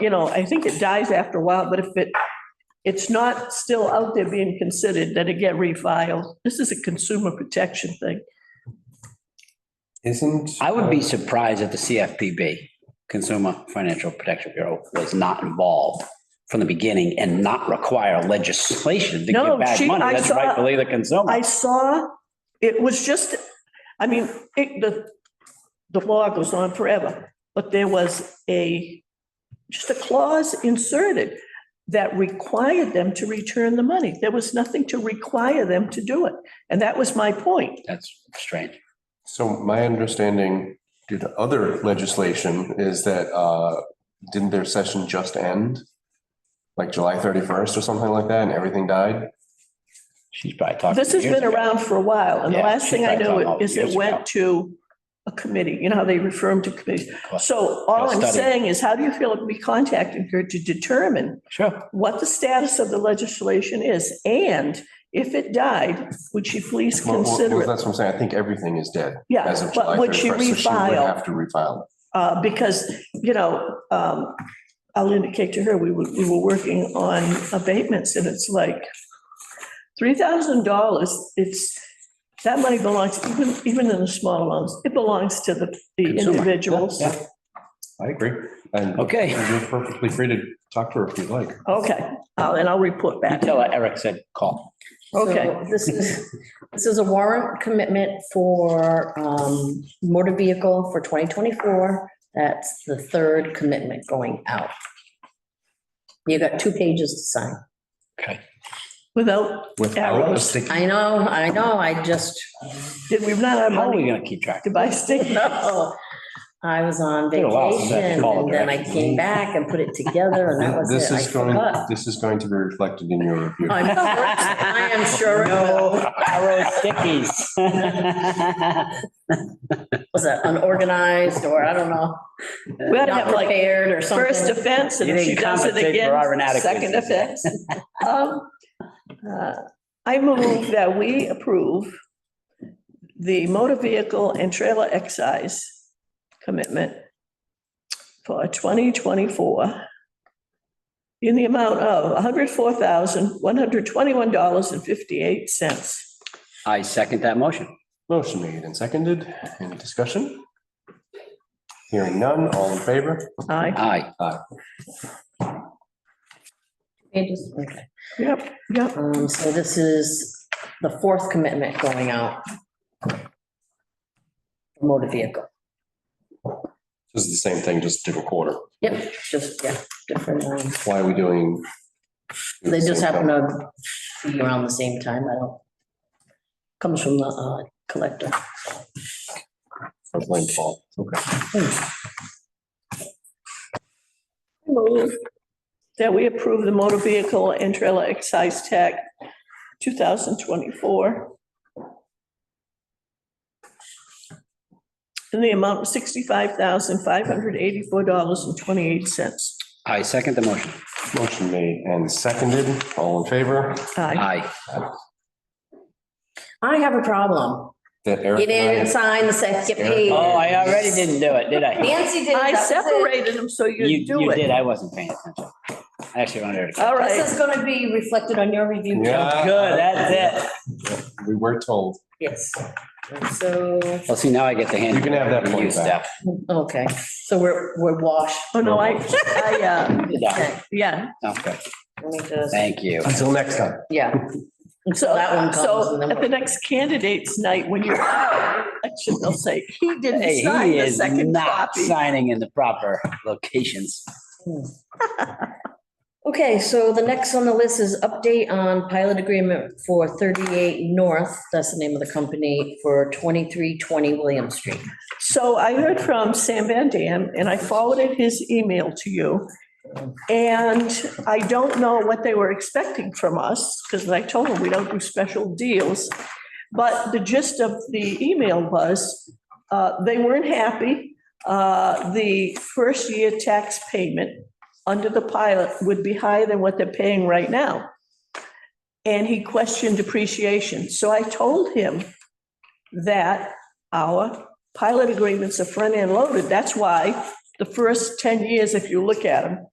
you know, I think it dies after a while, but if it, it's not still out there being considered, then it get refiled. This is a consumer protection thing. Isn't? I would be surprised if the CFPB, Consumer Financial Protection Bureau, was not involved from the beginning and not require legislation to No, give back she- I money. That's saw- rightfully the I consumer. saw, it was just, I mean, it, the, the law goes on forever, but there was a, just a clause inserted that required them to return the money. There was nothing to require them to do it. And that was my point. That's strange. So my understanding due to other legislation is that, uh, didn't their session just end? Like July thirty-first or something like that and everything died? She's probably talking. This has years been ago. around for a while, and the Yeah, last she thing I started talking know about is it years ago. went to a committee, you know how they refer them to committees. So all I'm Study. saying is, how do you feel if we contacted her to determine Sure. what the status of the legislation is? And if it died, would she please Well, well, consider it? That's what I'm saying. I think everything is dead as Yeah, of July but would thirty-first. she refile? Have to refile. Uh, Because, you know, um, I'll indicate to her, we were, we were working on abatements, and it's like $3,000, it's, that money belongs, even, even in the small amounts, it belongs to the the Consumer. individuals. Yeah. I agree. And Okay. you're perfectly free to talk to her if you'd like. Okay, uh, and I'll report back. Until Eric said call. Okay. So This is, this is a warrant commitment for um, motor vehicle for 2024. That's the third commitment going out. You got two pages to sign. Okay. Without, Without a Arrows. sticky. I know, I know, I just, did we run out of How are we money going to keep track? to buy stick? no. I was on Did a lot of that vacation and then I follow-up. came back and put it together and that was This it. I is going, forgot. this is going to be reflected in your review. I'm sure- I am sure it will. Arrow stickies. Was it unorganized or I don't know, We ought to not have like prepared or something? First offense, and You if she didn't does it compensate for again, our inadequacies. second offense. Um, uh, I move that we approve the motor vehicle and trailer excise commitment for 2024 in the amount of $104,121.58. I second that motion. Motion made and seconded. Any discussion? Hearing none, all in favor? Aye. Aye. It is- okay. Yep, yep. Um, so this is the fourth commitment going out. for Motor vehicle. This is the same thing, just different quarter. Yep, just, yeah, different ones. Why are we doing? They just happen to be around the same time. I don't. Comes from the uh, collector. I blame Paul. Okay. Move that we approve the motor vehicle and trailer excise tax 2024 in the amount of $65,584.28. I second the motion. Motion made and seconded. All in favor? Aye. Aye. I have a problem. That You Eric. didn't and I- sign the second Eric. page. Oh, I already didn't do it, did I? Nancy did. I separated them so You, you do you did. it. I wasn't paying attention. I actually wanted to. All This right, is gonna be reflected on your review. Yeah. Uh, Good, that's it. We were told. Yes. And So, Well, see, now I get the hand. You can have that You point back. stuff. okay, so we're, we're washed. oh no, I, I, uh, Yeah, Okay, yeah, okay. let me just, Thank you. Until next time. yeah. so, That one comes so in the- at the next candidates night, when you're out, election, they'll say, he Hey, didn't sign he the is second not copy. signing in the proper locations. Okay, so the next on the list is update on pilot agreement for 38 North, that's the name of the company, for 2320 William Street. So I heard from Sam Van Dam and I forwarded his email to you. And I don't know what they were expecting from us because I told them we don't do special deals. But the gist of the email was, uh, they weren't happy. Uh, the first year tax payment under the pilot would be higher than what they're paying right now. And he questioned depreciation. So I told him that our pilot agreements are front-end loaded. That's why the first 10 years, if you look at them,